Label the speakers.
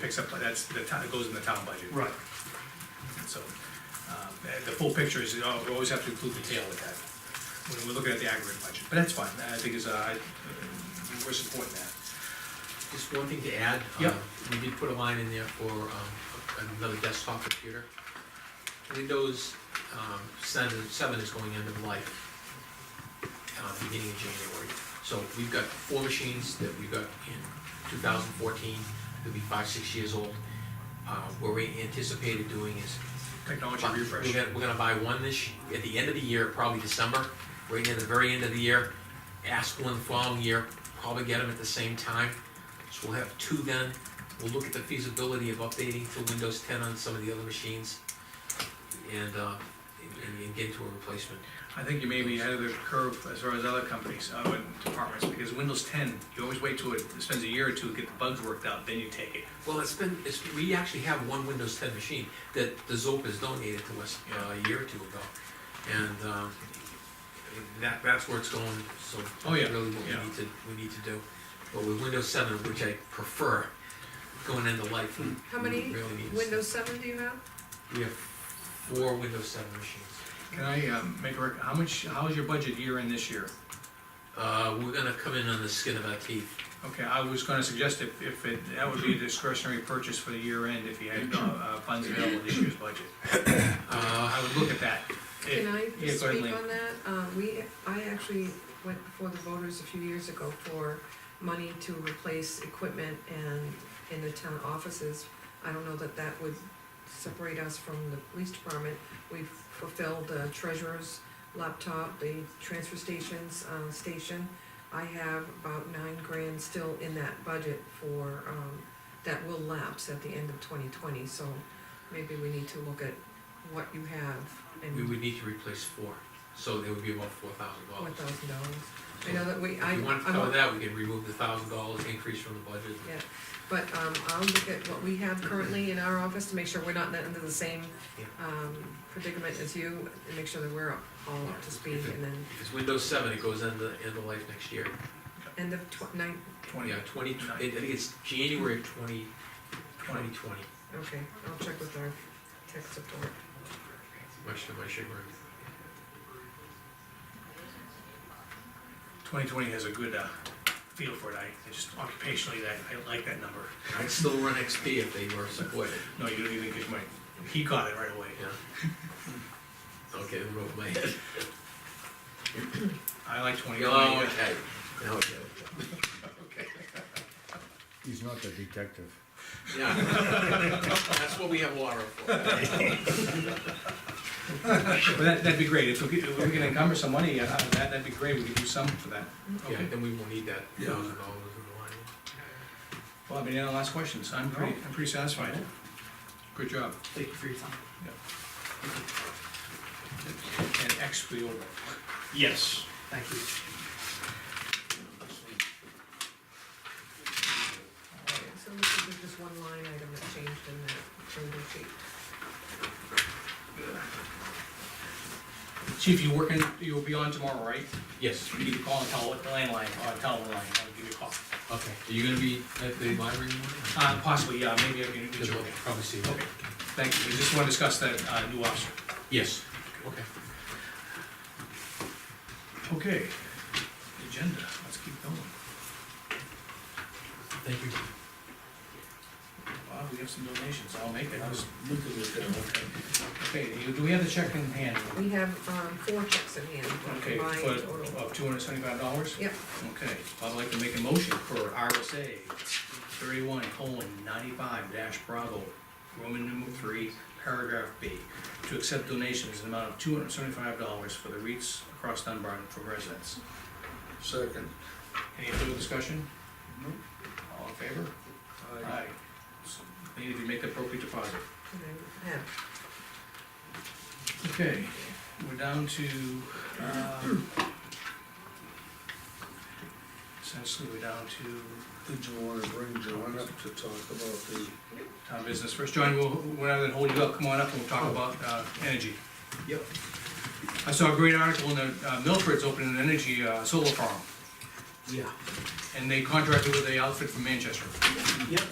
Speaker 1: picks up, that's, the town, it goes in the town budget.
Speaker 2: Right,
Speaker 1: So, um, and the full picture is, you know, we always have to include the tail with that, when we're looking at the aggregate budget, but that's fine, I think is, uh, I- we're supporting that.
Speaker 3: Just one thing to add. uh,
Speaker 1: Yep.
Speaker 3: We did put a line in there for um, another desktop computer. Windows um, seven, seven is going end of life, uh, beginning of January. So we've got four machines that we got in two thousand fourteen, they'll be five, six years old. Uh, What we anticipated doing is
Speaker 1: Technology
Speaker 3: But We're
Speaker 1: refresh,
Speaker 3: gonna, we're gonna buy one this, y- at the end of the year, probably December, right near the very end of the year. Ask one the following year, probably get them at the same time. So we'll have two then. We'll look at the feasibility of updating to Windows ten on some of the other machines. And, uh, and, and get to a replacement.
Speaker 1: I think you may be ahead of the curve as far as other companies, other departments, because Windows ten, you always wait till it spends a year or two to get the bugs worked out, then you take it.
Speaker 3: Well, it's been, it's, we actually have one Windows ten machine that the Zopas donated to us uh, a year or two ago. And, um, that, that's where it's going, so.
Speaker 1: Oh, yeah,
Speaker 3: Really what we
Speaker 1: yeah.
Speaker 3: need to, we need to do. But with Windows seven, which I prefer, going into life. we
Speaker 4: How many
Speaker 3: really need to-
Speaker 4: Windows seven do you have?
Speaker 3: We have four Windows seven machines.
Speaker 1: Can I, um, make a rec, how much, how is your budget year in this year?
Speaker 3: Uh, we're gonna come in on the skin of our teeth.
Speaker 1: Okay, I was gonna suggest if, if it, that would be a discretionary purchase for the year end, if you had, uh, uh, funds available this year's budget.
Speaker 3: Uh,
Speaker 1: I would look at that.
Speaker 4: Can I
Speaker 1: Yeah, go ahead,
Speaker 4: speak
Speaker 1: Lynn.
Speaker 4: on that? Uh, we, I actually went before the voters a few years ago for money to replace equipment and in the town offices. I don't know that that would separate us from the police department. We've fulfilled the treasurer's laptop, the transfer stations, uh, station. I have about nine grand still in that budget for, um, that will lapse at the end of twenty twenty, so maybe we need to look at what you have and.
Speaker 3: we would need to replace four, so there would be about four thousand
Speaker 4: Four
Speaker 3: dollars.
Speaker 4: thousand dollars. I know that we, I,
Speaker 3: If you want to
Speaker 4: I
Speaker 3: cover
Speaker 4: want-
Speaker 3: that, we can remove the thousand dollars increase from the budget.
Speaker 4: Yeah. but, um, I'll look at what we have currently in our office to make sure we're not under the same,
Speaker 3: Yeah.
Speaker 4: um, predicament as you, and make sure that we're up- all up to speed, and then
Speaker 3: If it's Windows seven, it goes into, into life next year.
Speaker 4: end of tw- nine,
Speaker 1: Twenty,
Speaker 3: Yeah, twenty, I think it's January of twenty, twenty twenty,
Speaker 4: okay, I'll check with our tech support.
Speaker 3: much to my chagrin.
Speaker 1: twenty twenty has a good, uh, feel for it, I, I just occupationally, that, I like that number.
Speaker 3: I'd still run XP if they were supported,
Speaker 1: No, you don't even get my, he got it right away.
Speaker 3: yeah. Okay, it went over my head.
Speaker 1: I like twenty
Speaker 3: Oh,
Speaker 1: twenty.
Speaker 3: okay, Now I get it.
Speaker 5: He's not the detective.
Speaker 3: Yeah. That's what we have water for.
Speaker 1: But that, that'd be great, if we could, if we can encumber some money uh, out of that, that'd be great, we could do something for that.
Speaker 3: Yeah,
Speaker 1: Okay.
Speaker 3: then we won't need that
Speaker 5: Yeah.
Speaker 3: thousand dollars in the line.
Speaker 1: Well, I mean, any last questions, I'm pretty, I'm pretty satisfied. Good job.
Speaker 6: Thank you for your time.
Speaker 1: And X we over.
Speaker 6: Yes. Thank you.
Speaker 4: So this is just one line item that changed in that change sheet.
Speaker 1: Chief, you working, you'll be on tomorrow, right?
Speaker 3: Yes,
Speaker 1: You need to call and tell the landline, or tell the line, I'll give you a call.
Speaker 3: okay. Are you gonna be at the library in the morning?
Speaker 1: Uh, possibly, yeah, maybe I can,
Speaker 3: Because we'll probably see you.
Speaker 1: Okay, thank you, I just wanna discuss that, uh, new officer.
Speaker 3: Yes. Okay.
Speaker 1: Okay, agenda, let's keep going.
Speaker 3: Thank you.
Speaker 1: Wow, we have some donations, I'll make it. I was looking at that. Okay, you- do we have the check in hand?
Speaker 4: We have, um, four checks in hand,
Speaker 1: Okay, uh,
Speaker 4: combined
Speaker 1: for,
Speaker 4: total.
Speaker 1: of two hundred seventy-five dollars?
Speaker 4: Yep,
Speaker 1: Okay, I'd like to make a motion for RSA thirty-one colon ninety-five dash Bravo, Roman numeral three, paragraph B, to accept donations in the amount of two hundred seventy-five dollars for the REITs across Dunbar from residents.
Speaker 5: Second.
Speaker 1: Any further discussion?
Speaker 5: No.
Speaker 1: All in favor?
Speaker 5: Aye.
Speaker 1: So, They need to make the appropriate deposit.
Speaker 4: and I have
Speaker 1: Okay, we're down to, um, essentially, we're down to
Speaker 5: Did you wanna bring John up to talk about the,
Speaker 1: town business first. John, we'll, we're not gonna hold you up, come on up and we'll talk about, uh, energy.
Speaker 3: Yep.
Speaker 1: I saw a great article in the, uh, Milford's opening an energy, uh, solar farm,
Speaker 3: Yeah.
Speaker 1: and they contracted with a outfit from Manchester.
Speaker 6: Yep,